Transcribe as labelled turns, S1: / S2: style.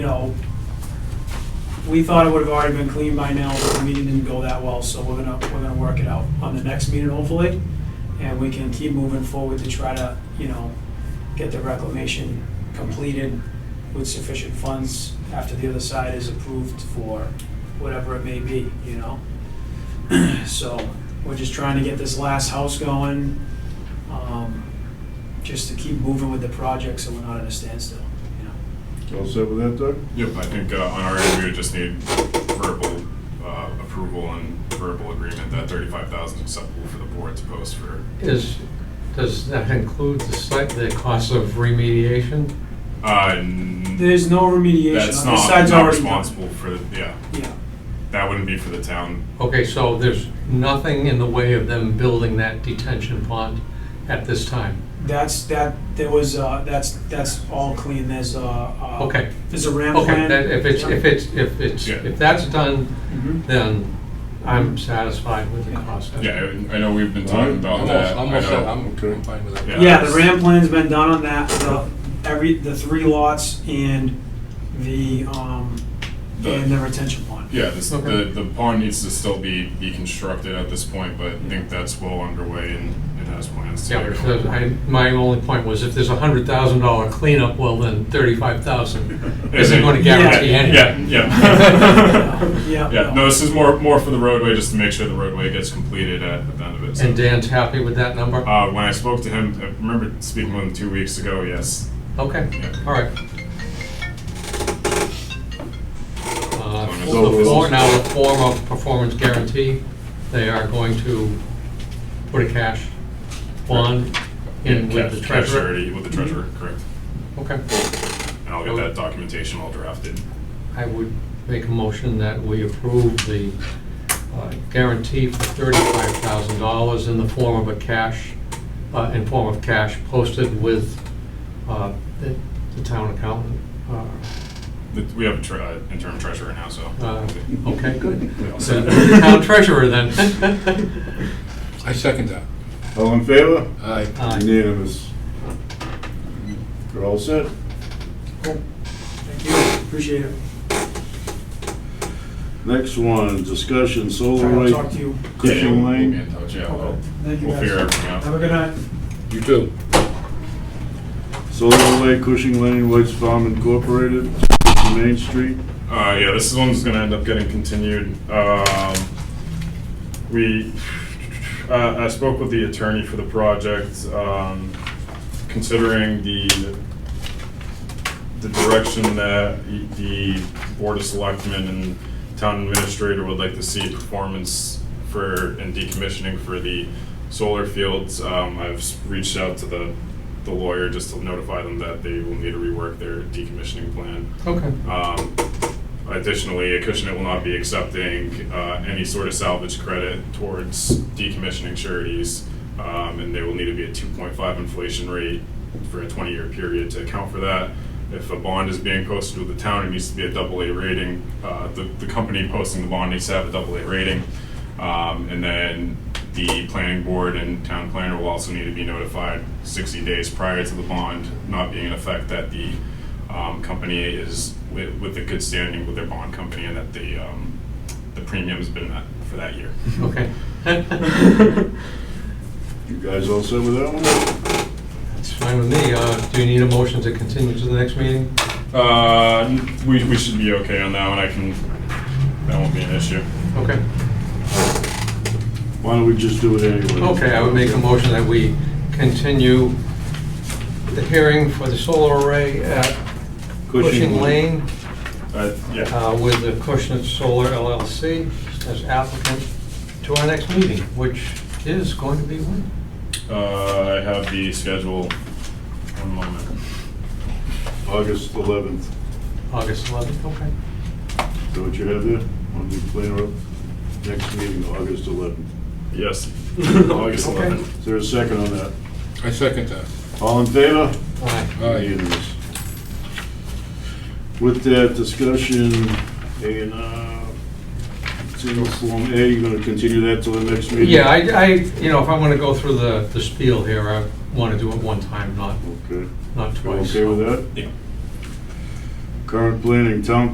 S1: you know, we thought it would have already been cleaned by now, but the meeting didn't go that well, so we're gonna, we're gonna work it out on the next meeting hopefully. And we can keep moving forward to try to, you know, get the reclamation completed with sufficient funds after the other side is approved for whatever it may be, you know? So, we're just trying to get this last house going, um, just to keep moving with the project so we're not at a standstill, you know?
S2: All set with that, Doug?
S3: Yep, I think uh, on our end, we would just need verbal uh, approval and verbal agreement that thirty-five thousand is acceptable for the board to post for.
S4: Is, does that include the site, the cost of remediation?
S3: Uh, n-
S1: There's no remediation.
S3: That's
S1: The
S3: not,
S1: side's
S3: not
S1: already done.
S3: responsible for, yeah,
S1: Yeah,
S3: that wouldn't be for the town.
S4: Okay, so there's nothing in the way of them building that detention pond at this time?
S1: that's, that, there was, uh, that's, that's all clean, there's a, uh.
S4: Okay.
S1: There's a ramp
S4: Okay,
S1: plan.
S4: that- if it's, if it's, if it's,
S3: Yeah.
S4: if that's done,
S1: Mhm.
S4: then I'm satisfied with the cost.
S3: Yeah, I I know we've been talking about
S2: I'm
S3: that.
S5: I'm
S3: I
S5: all set,
S3: know-
S4: um,
S5: I'm I'm fine with that.
S3: Yeah.
S1: Yeah, the ramp plan's been done on that, the, every, the three lots and the, um,
S3: The-
S1: and the retention pond.
S3: Yeah, this, the,
S4: Okay.
S3: the pond needs to still be, be constructed at this point, but I think that's well underway and it has plans to.
S4: Yeah,
S3: get
S4: because
S3: going.
S4: I, my only point was if there's a hundred thousand dollar cleanup, well, then thirty-five thousand isn't gonna guarantee
S1: Yeah,
S3: Yeah,
S4: anything.
S3: yeah.
S1: Yeah,
S3: Yeah,
S1: no.
S3: no, this is more, more for the roadway, just to make sure the roadway gets completed at at the end of it. so-
S4: And Dan's happy with that number?
S3: Uh, when I spoke to him, I remember speaking with him two weeks ago, yes.
S4: Okay,
S3: Yeah.
S4: all right. Uh,
S3: So
S4: for-
S3: this
S4: for-
S3: is-
S4: Now, the form of performance guarantee, they are going to put a cash bond in with the
S3: Cash- cash
S4: treasurer. Mm-hmm.
S3: already With the treasurer, correct.
S4: Okay,
S3: And I'll
S4: Oh.
S3: get that documentation all drafted.
S4: I would make a motion that we approve the uh, guarantee for thirty-five thousand dollars in the form of a cash, uh, in form of cash posted with uh, the the town accountant, uh,
S3: The- We have an interim treasurer now, so.
S4: Uh, Okay, good.
S3: We all
S4: So
S3: set.
S4: you're the town treasurer then.
S5: I second that.
S2: All in favor?
S5: Aye.
S4: Aye.
S2: Unanimous. You're all set?
S1: Thank you, appreciate it.
S2: Next one, discussion solar
S1: I'll talk to you.
S2: light
S3: Yeah, we'll-
S2: Cushing
S3: we'll be
S2: Lane.
S3: in touch, yeah,
S1: Okay.
S3: we'll,
S1: Thank you,
S3: we'll
S1: guys.
S3: figure everything
S1: Have a
S3: out.
S1: good night.
S5: You too.
S2: Solar light Cushing Lane, White's Farm Incorporated, 60 Main Street.
S3: Uh, yeah, this one's gonna end up getting continued. Um, we, uh, I spoke with the attorney for the project, um, considering the, the direction that the Board of Selectmen and Town Administrator would like to see performance for, and decommissioning for the solar fields. Um, I've reached out to the, the lawyer just to notify them that they will need to rework their decommissioning plan.
S4: Okay,
S3: Um, Additionally, Acushnet will not be accepting uh, any sort of salvage credit towards decommissioning sureties, um, and there will need to be a 2.5 inflation rate for a 20-year period to account for that. If a bond is being posted with the town, it needs to be a double A rating. Uh, The the company posting the bond needs to have a double A rating. Um, And then the planning board and town planner will also need to be notified 60 days prior to the bond not being in effect that the um, company is with, with a good standing with their bond company and that the, um, the premium's been met for that year.
S4: okay.
S2: You guys all set with that one?
S4: It's fine with me. Uh, Do you need a motion to continue to the next meeting?
S3: Uh, we, we should be okay on that one, I can, that won't be an issue.
S4: Okay,
S2: Why don't we just do it anyway?
S4: okay, I would make a motion that we continue the hearing for the solar array at Cushing Lane
S3: Uh, yeah,
S4: uh, with the Cushing Solar LLC as applicant to our next meeting, which is going to be when?
S3: uh, I have the schedule, one moment.
S2: August 11th.
S4: August 11th, okay.
S2: So what you have there? On the planner, next meeting, August 11th.
S3: Yes, August
S4: Okay.
S3: 11th.
S2: Is there a second on that?
S5: I second that.
S2: All in favor?
S4: All right.
S2: Unanimous. With that discussion, A and R, single form A, you're gonna continue that till the next meeting?
S4: Yeah, I, I, you know, if I want to go through the, the spiel here, I want to do it one time, not,
S2: Okay,
S4: not
S2: You
S4: twice.
S2: okay with that?
S3: Yeah.
S2: Current planning, town